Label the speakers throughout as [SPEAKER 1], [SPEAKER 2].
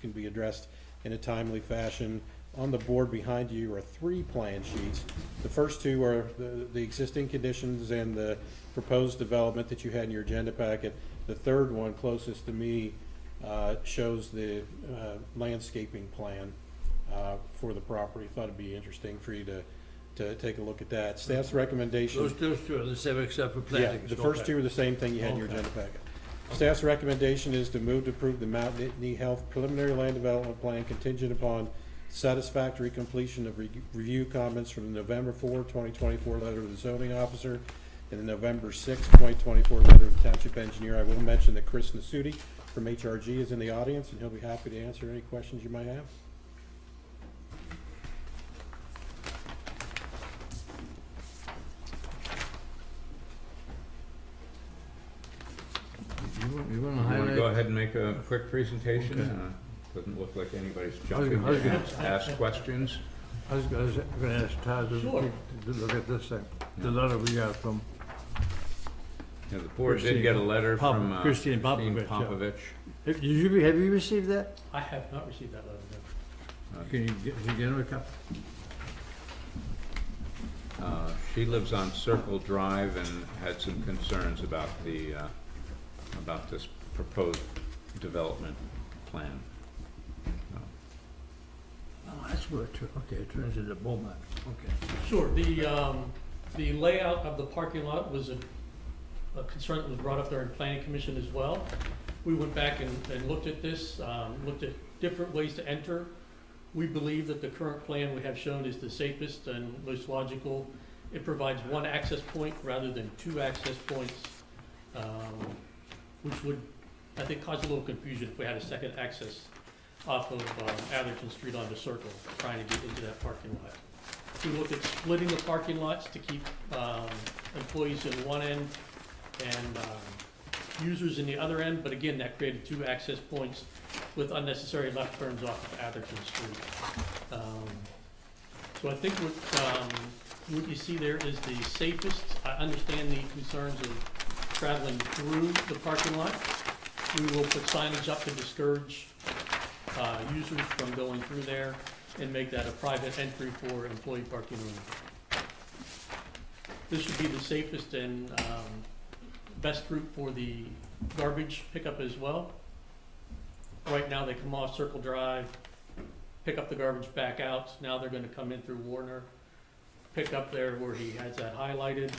[SPEAKER 1] can be addressed in a timely fashion. On the board behind you are three plan sheets. The first two are the, the existing conditions and the proposed development that you had in your agenda packet. The third one, closest to me, uh, shows the uh, landscaping plan uh, for the property. Thought it'd be interesting for you to, to take a look at that. Staff's recommendation.
[SPEAKER 2] Those those two are the same except for
[SPEAKER 1] Yeah,
[SPEAKER 2] planting.
[SPEAKER 1] the first two are the same thing you had in your
[SPEAKER 2] Okay.
[SPEAKER 1] agenda packet. Staff's recommendation is to move to approve the Mount Nittany Health preliminary land development plan contingent upon satisfactory completion of re- review comments from the November 4, 2024 letter of the zoning officer and the November 6, twenty twenty-four letter of the township engineer. I will mention that Chris Nasuti from HRG is in the audience and he'll be happy to answer any questions you might have.
[SPEAKER 2] You want to
[SPEAKER 3] You wanna go
[SPEAKER 2] highlight?
[SPEAKER 3] ahead and make a quick presentation?
[SPEAKER 2] Okay.
[SPEAKER 3] Uh, Doesn't look like anybody's
[SPEAKER 2] I was
[SPEAKER 3] jumping
[SPEAKER 2] gonna- I was
[SPEAKER 3] to
[SPEAKER 2] gonna-
[SPEAKER 3] ask- ask questions.
[SPEAKER 2] I was going to ask Todd to
[SPEAKER 4] Sure.
[SPEAKER 2] to look at this thing, the letter we got from,
[SPEAKER 3] Yeah, The board did get a letter
[SPEAKER 2] Pop-
[SPEAKER 3] from uh,
[SPEAKER 2] Christine
[SPEAKER 3] Christine
[SPEAKER 2] Popovich, yeah.
[SPEAKER 3] Popovich.
[SPEAKER 2] have you, re- have you received that?
[SPEAKER 4] I have not received that letter, no.
[SPEAKER 2] Can you get, can you get him a copy?
[SPEAKER 3] Uh, She lives on Circle Drive and had some concerns about the, uh, about this proposed development plan.
[SPEAKER 2] Oh, that's what, it tur- okay, it turns into Beaumont, okay.
[SPEAKER 4] Sure, the, um, the layout of the parking lot was a, a concern that was brought up during planning commission as well. We went back and, and looked at this, um, looked at different ways to enter. We believe that the current plan we have shown is the safest and most logical. It provides one access point rather than two access points, um, which would, I think, cause a little confusion if we had a second access off of, um, Atherton Street onto Circle, trying to get into that parking lot. We looked at splitting the parking lots to keep um, employees in one end and um, users in the other end, but again, that created two access points with unnecessary left turns off of Atherton Street. Um, So I think what, um, what you see there is the safest. I understand the concerns of traveling through the parking lot. We will put signage up to discourage uh, users from going through there and make that a private entry for employee parking only. This should be the safest and um, best route for the garbage pickup as well. Right now, they come off Circle Drive, pick up the garbage back out. Now they're gonna come in through Warner, pick up there where he has that highlighted,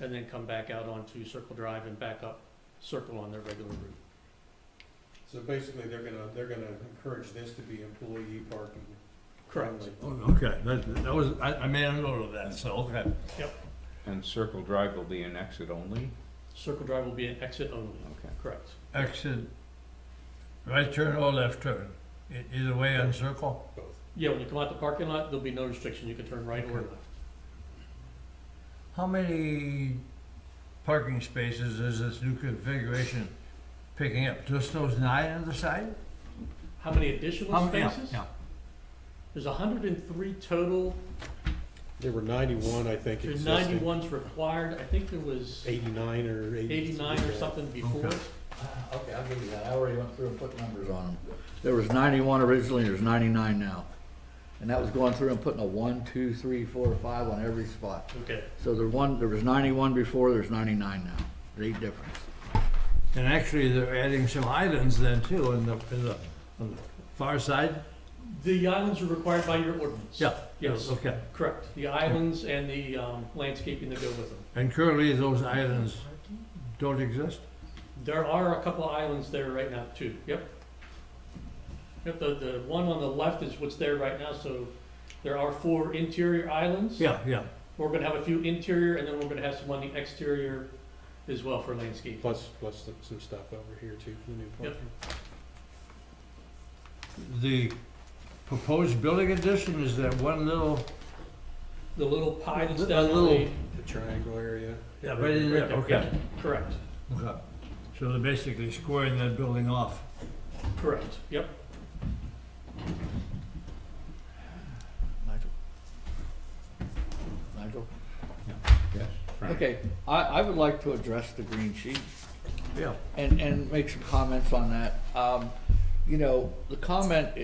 [SPEAKER 4] and then come back out onto Circle Drive and back up Circle on their regular route.
[SPEAKER 1] So basically, they're gonna, they're gonna encourage this to be employee parking. only.
[SPEAKER 2] Oh, Okay, that, that was, I, I made a note of that, so, okay.
[SPEAKER 3] And Circle Drive will be an exit only?
[SPEAKER 4] Circle Drive will be an exit only,
[SPEAKER 3] Okay.
[SPEAKER 4] correct?
[SPEAKER 2] Exit, right turn or left turn, E- either way on Circle?
[SPEAKER 4] Yeah, when you come out the parking lot, there'll be no restriction, you can turn right or
[SPEAKER 2] Okay.
[SPEAKER 4] left.
[SPEAKER 2] How many parking spaces is this new configuration picking up? Just those nine on the side?
[SPEAKER 4] How many additional spaces?
[SPEAKER 2] Yeah.
[SPEAKER 4] There's hundred and three total,
[SPEAKER 1] There were ninety-one, I think,
[SPEAKER 4] there's
[SPEAKER 1] existing.
[SPEAKER 4] ninety-one's required, I think there was
[SPEAKER 1] 89 or 80.
[SPEAKER 4] eighty-nine or something before.
[SPEAKER 2] Okay.
[SPEAKER 5] Ah, Okay, I'll give you that. I already went through and put numbers on them. There was ninety-one originally, there's ninety-nine now. And that was going through and putting a one, two, three, four, five on every spot.
[SPEAKER 4] Okay,
[SPEAKER 5] So there one, there was ninety-one before, there's ninety-nine now. There's Eight difference.
[SPEAKER 2] And actually, they're adding some islands then too, in the, in the, on the far side?
[SPEAKER 4] the islands are required by your ordinance.
[SPEAKER 2] Yeah.
[SPEAKER 4] Yes,
[SPEAKER 2] Okay.
[SPEAKER 4] correct, the islands and the um, landscaping that go with them.
[SPEAKER 2] And currently, those islands don't exist?
[SPEAKER 4] There are a couple of islands there right now too, yep. Yep, the, the one on the left is what's there right now, so there are four interior islands.
[SPEAKER 2] Yeah, yeah.
[SPEAKER 4] We're gonna have a few interior, and then we're gonna have some on the exterior as well for landscape.
[SPEAKER 1] Plus, plus some stuff over here too for the new
[SPEAKER 4] Yep.
[SPEAKER 1] parking.
[SPEAKER 2] The proposed building addition is that one little,
[SPEAKER 4] The little pie that's
[SPEAKER 2] A
[SPEAKER 4] down the
[SPEAKER 2] little-
[SPEAKER 4] way-
[SPEAKER 1] The triangle area.
[SPEAKER 2] yeah, right in there,
[SPEAKER 4] right
[SPEAKER 2] okay.
[SPEAKER 4] yeah, Correct,
[SPEAKER 2] Okay. So they're basically squaring that building off.
[SPEAKER 4] correct, yep.
[SPEAKER 5] Nigel? Nigel?
[SPEAKER 3] Yes. Frank?
[SPEAKER 5] Okay, I, I would like to address the green sheet.
[SPEAKER 2] Yeah.
[SPEAKER 5] and, and make some comments on that. Um, you know, the comment